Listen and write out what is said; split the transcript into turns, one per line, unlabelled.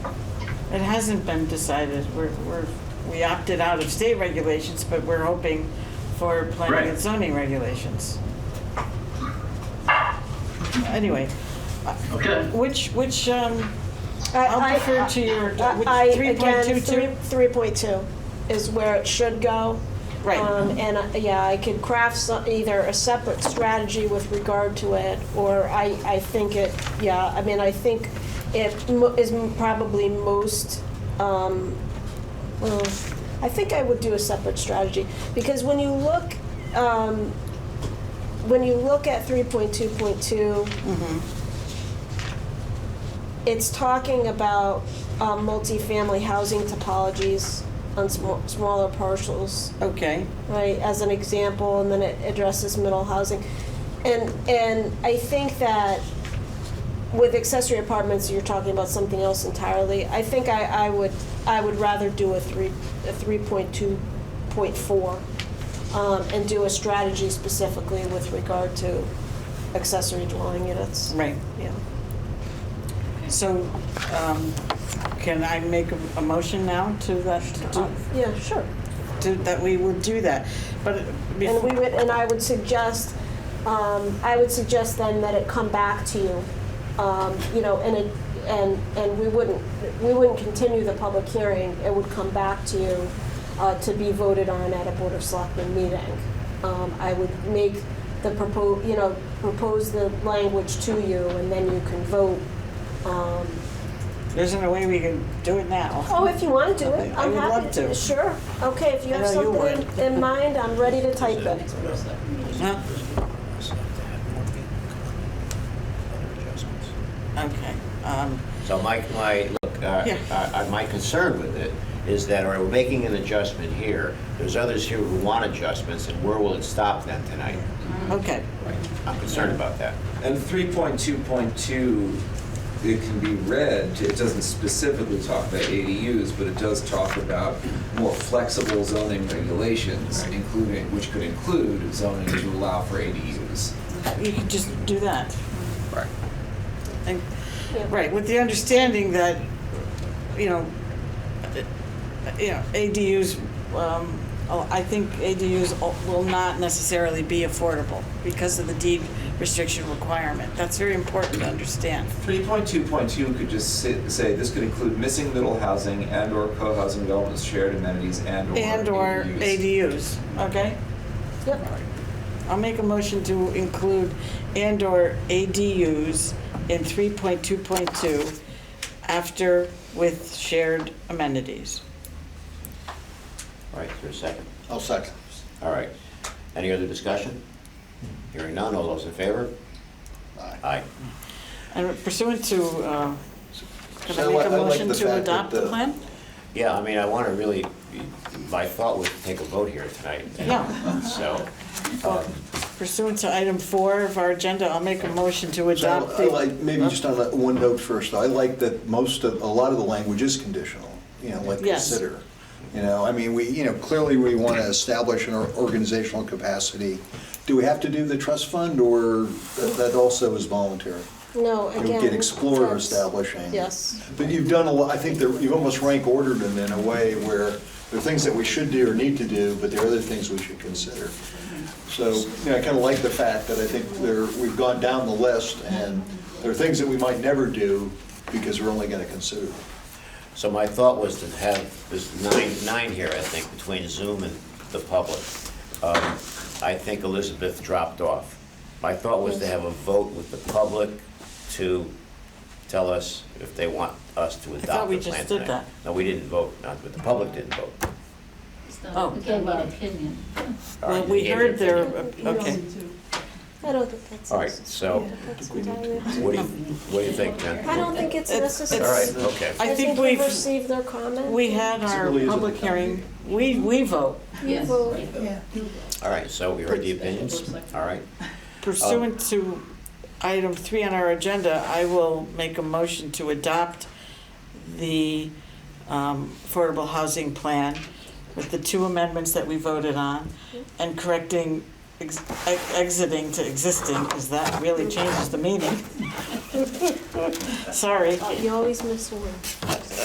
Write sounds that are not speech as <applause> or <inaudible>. It hasn't been decided. We're, we're, we opted out of state regulations, but we're hoping for planning and
Right.
zoning regulations. Anyway,
Okay.
which, which, um,
I-
I'll
I- uh,
defer to your, which,
I, again,
3.22?
three- 3.2 is where it should go.
Right.
Um, And, uh, yeah, I could craft some, either a separate strategy with regard to it, or I, I think it, yeah, I mean, I think it mo- is m- probably most, um, well, I think I would do a separate strategy, because when you look, um, when you look at 3.2.2, it's talking about um, multifamily housing topologies on sm- smaller parcels,
Okay,
right, as an example, and then it addresses middle housing. And, and I think that with accessory apartments, you're talking about something else entirely. I think I, I would, I would rather do a three, a three point two point four, um, and do a strategy specifically with regard to accessory dwelling units.
right.
Yeah.
So, um, can I make a, a motion now to that, to,
Yeah, sure.
to, that we would do that? But
And we
before,
would, and I would suggest, um, I would suggest then that it come back to you, um, you know, and it, and, and we wouldn't, we wouldn't continue the public hearing, it would come back to you, uh, to be voted on at a Board of Selectmen meeting. Um, I would make the propos, you know, propose the language to you, and then you can vote, um,
there's no way we can do it now.
Oh, if you want to do it,
I
I'm
would
happy
love
to.
to.
Sure. Okay, if you
I
have
know you
something
would.
in- in mind, I'm ready to
<laughs>
type it.
Huh? Okay, um,
So my, my, look, uh,
Yeah.
uh, my concern with it is that, all right, we're making an adjustment here. There's others here who want adjustments, and where will it stop them tonight?
okay,
I'm concerned about that.
And 3.2.2, it can be read, it doesn't specifically talk about ADUs, but it does talk about more flexible zoning regulations, including, which could include zoning to allow for ADUs.
you can just do that.
Right.
And-
Yeah.
Right, with the understanding that, you know, uh, you know, ADUs, um, oh, I think ADUs o- will not necessarily be affordable because of the deed restriction requirement. That's very important to understand.
3.2.2 could just si- say, this could include missing middle housing and/or co-housing developments, shared amenities, and/or
And/or
ADUs.
ADUs, okay?
Yep.
I'll make a motion to include and/or ADUs in 3.2.2 after with shared amenities.
All right, is there a second?
I'll second.
All right. Any other discussion? Hearing none, all those in favor?
Aye.
Aye.
And pursuant to, uh, can I
So
make
I-
a
I like
motion
the
to
fact that
adopt the
the-
plan?
Yeah, I mean, I want to really, my thought was to take a vote here tonight.
Yeah.
So,
Well, Pursuant to item four of our agenda, I'll make a motion to
So
adopt
I like-
the...
Maybe just on that one note first, I like that most of, a lot of the language is conditional, you know, like
Yes.
consider. You know, I mean, we, you know, clearly we want to establish an or- organizational capacity. Do we have to do the trust fund, or that that also is voluntary?
No,
You
again.
know, Get explore
that's-
establishing.
Yes.
But you've done a lot, I think that you've almost rank ordered them in a way where there are things that we should do or need to do, but there are other things we should consider. So, you know, I kind of like the fact that I think there, we've gone down the list and there are things that we might never do because we're only going to consider them.
so my thought was to have, there's nine, nine here, I think, between Zoom and the public. Um, I think Elizabeth dropped off. My thought was to have a vote with the public to tell us if they want us to adopt the plan tonight.
we just did that.
No, we didn't vote, not, but the public didn't vote.
Oh.
So we gave an opinion.
All
Well,
right,
we
you gave
heard their,
your opinion.
okay.
I don't think that's.
All right, so
that's entirely up to you.
what do you, what do you think, Jen?
I don't think it's
It's- it's-
All
necessary.
right, okay.
I
I
think
think
we've-
we've received their comment.
We had
It
our
really is a
public
town
hearing, we, we vote
Yes.
vote.
All right, so we heard the opinions. All right,
pursuant to item three on our agenda, I will make a motion to adopt the um, affordable housing plan with the two amendments that we voted on and correcting, ex- ex- exiting to existing, because that really changes the meaning. <laughs> Sorry.
You uh, always miss one.